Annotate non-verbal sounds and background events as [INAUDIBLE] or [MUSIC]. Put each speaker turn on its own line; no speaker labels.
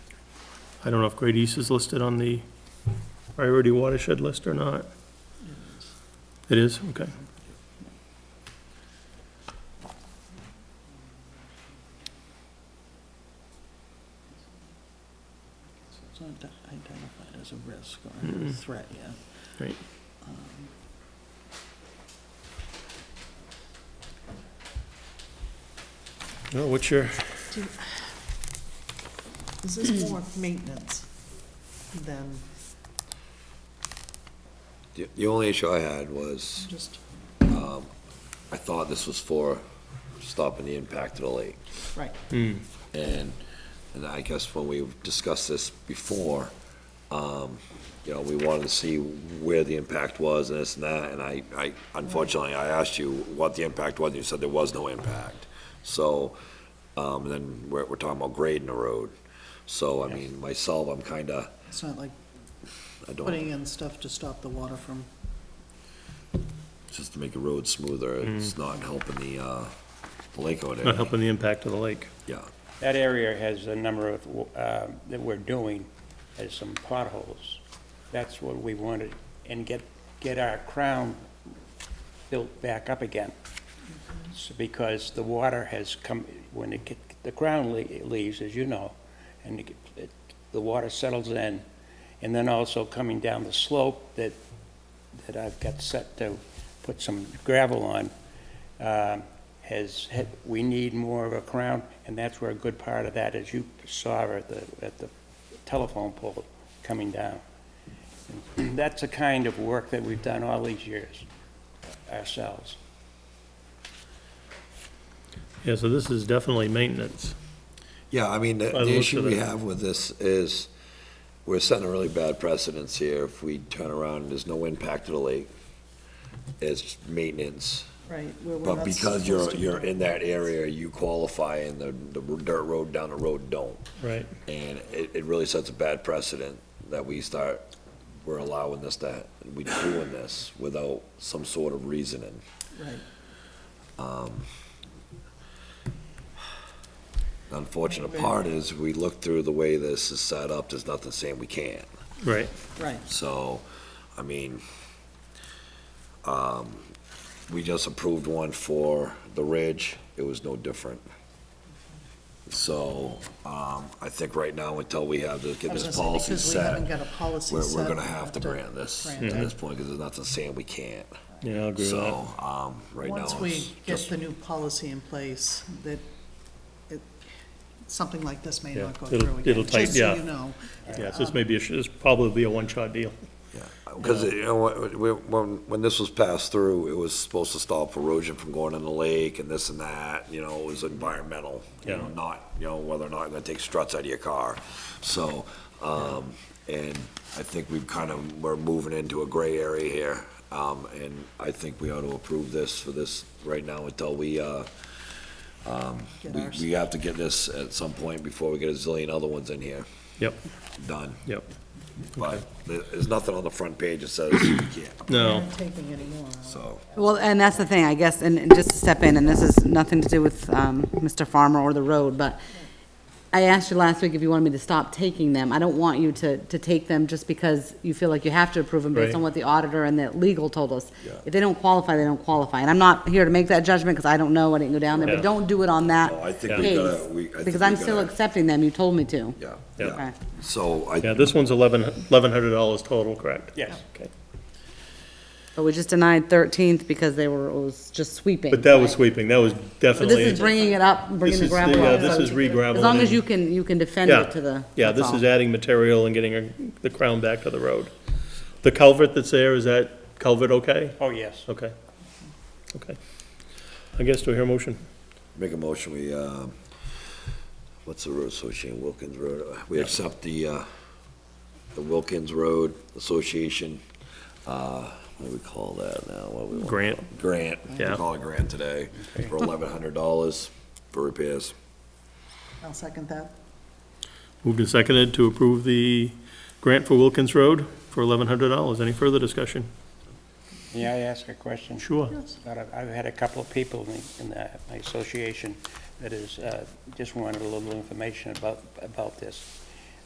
I don't know if Great East is listed on the priority watershed list or not. It is, okay.
So it's not di- identified as a risk or a
Mm-mm.
threat yet.
Right.
Um,
No, what's your?
This is more maintenance than
The- The only issue I had was,
just,
I thought this was for stopping the impact of the lake.
right.
And, and I guess when we discussed this before, um, you know, we wanted to see where the impact was and this and that, and I, I, unfortunately, I asked you what the impact was, and you said there was no impact. So, um, and then we're, we're talking about grading the road. So, I mean, myself, I'm kinda,
It's not like
I
putting
don't,
in stuff to stop the water from,
just to make the road smoother, it's not helping the, uh, the lake out
Mm. Not
there,
helping the impact of the lake.
yeah.
That area has a number of, uh, that we're doing, has some potholes. That's what we wanted, and get, get our crown built back up again. So Because the water has come, when it, get- the crown le- leaves, as you know, and it get- it- the water settles in, and then also coming down the slope that, that I've got set to put some gravel on, um, has, had- we need more of a crown, and that's where a good part of that, as you saw at the, at the telephone pole coming down. And [CLEARS THROAT] That's the kind of work that we've done all these years ourselves.
Yeah, so this is definitely maintenance.
Yeah, I mean, the,
By the
the
looks
issue
of
we
it.
have with this is, we're setting a really bad precedence here if we turn around and there's no impact to the lake. It's maintenance,
right, where we're
but
not
because you're,
supposed to be
you're
doing
in that
it.
area, you qualify and the, the dirt road down the road don't.
Right.
And it, it really sets a bad precedent that we start, we're allowing this, that, we doing this without some sort of reasoning.
Right,
Um, The unfortunate part is, we look through the way this is set up, there's nothing saying we can't.
Right.
right.
So, I mean, um, we just approved one for the Ridge, it was no different. So, um, I think right now, until we have to
I
get
was
this
gonna say,
policy
because we haven't
set,
got a policy
we're, we're
set,
gonna
we
have to grant this at
grant it.
this point, because there's nothing saying we can't.
Yeah, I agree with that.
So, um, right now,
Once we
it's
get
just,
the new policy in place, that, it, something like this may
Yeah,
not go through
it'll-
again.
it'll tight-
Just so
yeah.
you know,
Yeah, so this may be, a sh- this probably be a one-shot deal.
because, you know, what, we- when, when this was passed through, it was supposed to stop erosion from going in the lake and this and that, you know, it was environmental. You know,
Yeah.
not, you know, whether or not gonna take struts out of your car, so, um, and I think we've kind of, we're moving into a gray area here. Um, and I think we ought to approve this for this right now until we, uh,
get
we,
ours.
we have to get this at some point before we get a zillion other ones in here
Yep,
done.
yep.
But there- there's nothing on the front page that says you can't,
No,
Not taking any more.
so.
Well, and that's the thing, I guess, and and just to step in, and this is nothing to do with um, Mr. Farmer or the road, but I asked you last week if you wanted me to stop taking them. I don't want you to, to take them just because you feel like you have to approve them
Right.
based on what the auditor and the legal told us.
Yeah.
If they don't qualify, they don't qualify. And I'm not here to make that judgment because I don't know, I didn't go down there,
Yeah.
but don't do it on that
No, I think we gotta- we- I
case.
think
Because
we
I'm still
gotta-
accepting them, you told me to.
Yeah,
Yeah.
yeah.
Okay.
So I,
yeah, this one's eleven, eleven hundred dollars total, correct?
Yes.
Okay.
But we just denied 13th because they were, it was just sweeping.
But that was
right?
sweeping, that was
But
definitely.
this is bringing it up,
This
bringing the
is
gravel
yeah,
up.
This
so-
is re-graveling.
As long as
and-
you can, you can defend
Yeah,
it to the.
Yeah,
that's
this
all.
is adding material and getting a- the crown back to the road. The culvert that's there, is that culvert okay?
Oh, yes.
Okay, okay. I guess, do I hear a motion?
make a motion, we, um, what's the road association, Wilkins Road? Uh, We accept the, uh, the Wilkins Road Association, uh, what do we call that now? What we want-
Grant.
Grant, we
Yeah.
call it grant today, for eleven hundred dollars for repairs.
I'll second that.
Moved and seconded to approve the grant for Wilkins Road for eleven hundred dollars. Any further discussion?
May I ask a question?
Sure.
But I've, I've had a couple of people in, the- in the, my association that is, uh, just wanted a little information about, about this.